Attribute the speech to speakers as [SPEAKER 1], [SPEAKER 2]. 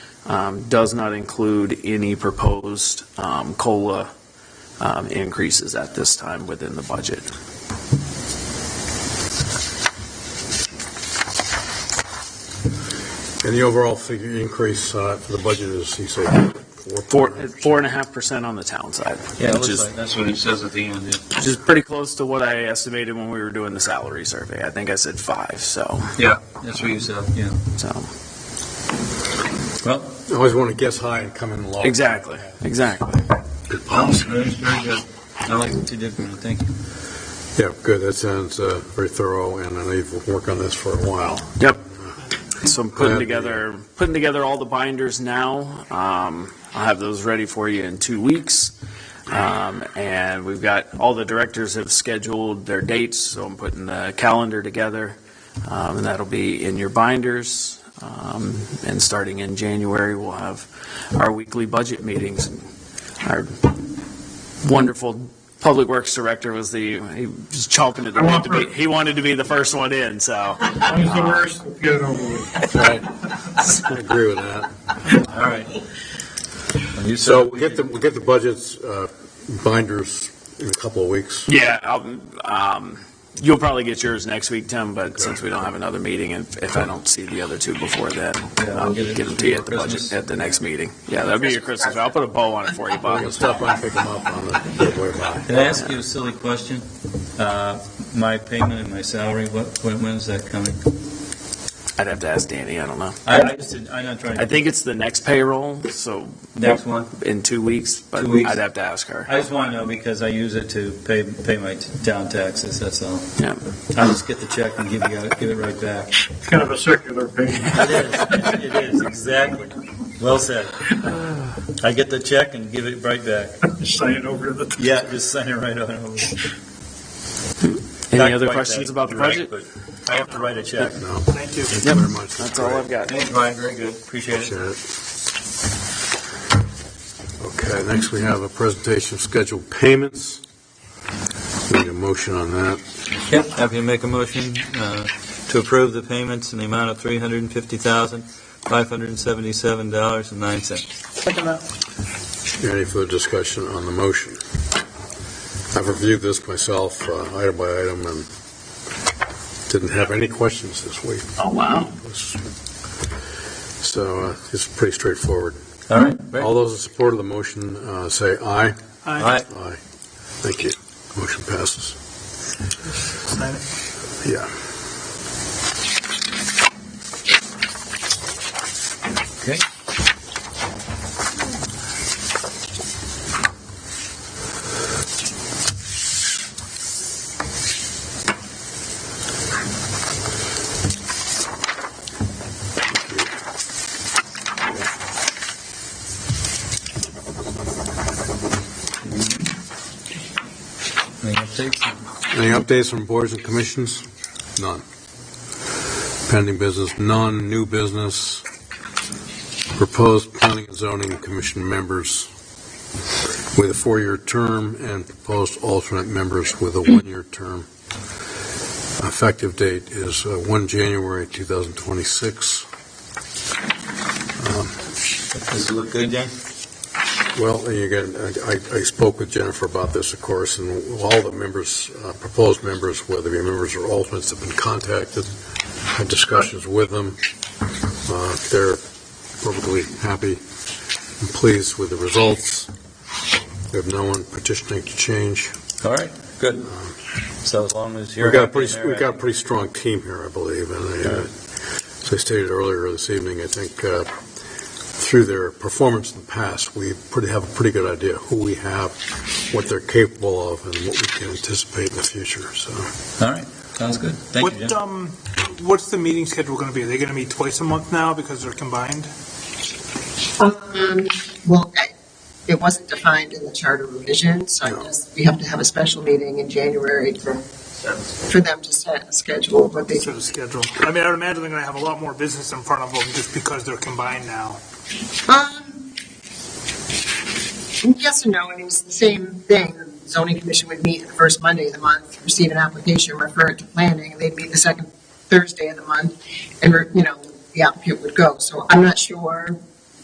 [SPEAKER 1] um, does not include any proposed um, COLA um, increases at this time within the budget.
[SPEAKER 2] And the overall figure increase uh, for the budget is, you say,
[SPEAKER 1] Four,
[SPEAKER 2] four?
[SPEAKER 1] four and a half percent on the town side,
[SPEAKER 3] Yeah, it
[SPEAKER 1] which
[SPEAKER 3] looks
[SPEAKER 1] is,
[SPEAKER 3] like that's what it says at the end. yeah.
[SPEAKER 1] which is pretty close to what I estimated when we were doing the salary survey. I think I said five, so,
[SPEAKER 3] Yeah, that's what you said, yeah.
[SPEAKER 1] so,
[SPEAKER 3] Well,
[SPEAKER 2] I always want to guess high and come in low.
[SPEAKER 1] exactly, exactly.
[SPEAKER 3] good policy, very, very good. I like what you did, man, thank you.
[SPEAKER 2] Yeah, good, that sounds uh, very thorough, and I know you've worked on this for a while.
[SPEAKER 1] So I'm
[SPEAKER 2] Yeah.
[SPEAKER 1] putting together, putting together all the binders now. Um, I'll have those ready for you in two weeks. Um, and we've got, all the directors have scheduled their dates, so I'm putting the calendar together. Um, and that'll be in your binders. Um, and starting in January, we'll have our weekly budget meetings. Our wonderful Public Works Director was the, he was chomping at the bit to be, he wanted to be the first one in, so.
[SPEAKER 2] Get it over with. I agree with that.
[SPEAKER 3] All right. Well, You
[SPEAKER 2] So
[SPEAKER 3] said,
[SPEAKER 2] we'll get the, we'll get the budgets, uh, binders in a couple of weeks.
[SPEAKER 1] Yeah, I'll- um, you'll probably get yours next week, Tim, but since we don't have another meeting, and if I don't see the other two before then,
[SPEAKER 3] Yeah,
[SPEAKER 1] I'll
[SPEAKER 3] we'll get
[SPEAKER 1] get
[SPEAKER 3] it
[SPEAKER 1] them to you at the
[SPEAKER 3] before
[SPEAKER 1] budget,
[SPEAKER 3] Christmas.
[SPEAKER 1] at the next meeting. Yeah, that'll be your Christmas, I'll put a bow on it for you, Bob.
[SPEAKER 2] I'll stop by and pick them up on the, don't worry about it.
[SPEAKER 3] can I ask you a silly question? Uh, My payment and my salary, what, when when is that coming?
[SPEAKER 1] I'd have to ask Danny, I don't know.
[SPEAKER 3] I, I just, didn't- I'm not trying
[SPEAKER 1] I
[SPEAKER 3] to,
[SPEAKER 1] think it's the next payroll, so
[SPEAKER 3] next one.
[SPEAKER 1] in two weeks, but
[SPEAKER 3] Two weeks.
[SPEAKER 1] I'd have to ask her.
[SPEAKER 3] I just want to know because I use it to pay, pay my t- town taxes, that's all.
[SPEAKER 1] Yeah.
[SPEAKER 3] I just get the check and give you, give it right back.
[SPEAKER 4] It's kind of a circular thing.
[SPEAKER 3] It is, it is, exactly. Well said. I get the check and give it right back.
[SPEAKER 4] Just saying over to the.
[SPEAKER 3] Yeah, just sign it right on over. Not
[SPEAKER 1] Any other
[SPEAKER 3] quite
[SPEAKER 1] questions
[SPEAKER 3] that
[SPEAKER 1] about the budget?
[SPEAKER 3] direct, but I have to write a check.
[SPEAKER 2] No. Thank you. Thank you very much.
[SPEAKER 1] That's all I've got.
[SPEAKER 3] Thanks, Brian, very good, appreciate it.
[SPEAKER 2] Appreciate it. Okay, next we have a presentation of scheduled payments. Need a motion on that.
[SPEAKER 3] Yep, happy to make a motion uh, to approve the payments in the amount of three hundred and fifty thousand, five hundred and seventy-seven dollars and nine cents.
[SPEAKER 2] Any further discussion on the motion? I've reviewed this myself, uh, item by item, and didn't have any questions this week.
[SPEAKER 1] Oh, wow.
[SPEAKER 2] So uh, it's pretty straightforward.
[SPEAKER 3] All right,
[SPEAKER 2] All those in support of the motion, uh, say aye.
[SPEAKER 3] all right.
[SPEAKER 2] Aye. Thank you. Motion passes. Yeah.
[SPEAKER 3] Okay. Any updates?
[SPEAKER 2] Any updates from boards and commissions? None. Pending business, none. New business, proposed planning and zoning commission members with a four-year term and proposed alternate members with a one-year term. Effective date is uh, 1 January 2026.
[SPEAKER 3] Does it look good, Dan?
[SPEAKER 2] Well, and again, I, I- I spoke with Jennifer about this, of course, and all the members, uh, proposed members, whether they be members or alternates, have been contacted, had discussions with them. Uh, They're perfectly happy and pleased with the results. We have no one petitioning to change.
[SPEAKER 3] All right, good. So as long as you're.
[SPEAKER 2] We've got a
[SPEAKER 3] happy and
[SPEAKER 2] pretty,
[SPEAKER 3] they're
[SPEAKER 2] we've got a pretty strong team here, I believe, and uh, as I stated earlier this evening, I think uh, through their performance in the past, we pretty, have a pretty good idea who we have, what they're capable of, and what we can anticipate in the future, so.
[SPEAKER 3] happy. All right, sounds good. Thank you, Jim.
[SPEAKER 5] What, um, what's the meeting schedule going to be? Are they going to meet twice a month now because they're combined?
[SPEAKER 6] Um, well, I- it wasn't defined in the charter revision, so I
[SPEAKER 2] No.
[SPEAKER 6] guess we have to have a special meeting in January for, for them to set a schedule of what they,
[SPEAKER 5] So the schedule. I mean, I would imagine they're going to have a lot more business in front of them just because they're combined now.
[SPEAKER 6] um, yes and no, I mean, it's the same thing. The Zoning commission would meet the first Monday of the month, receive an application, refer it to planning, and they'd meet the second Thursday of the month, and, you know, the applicant would go. So I'm not sure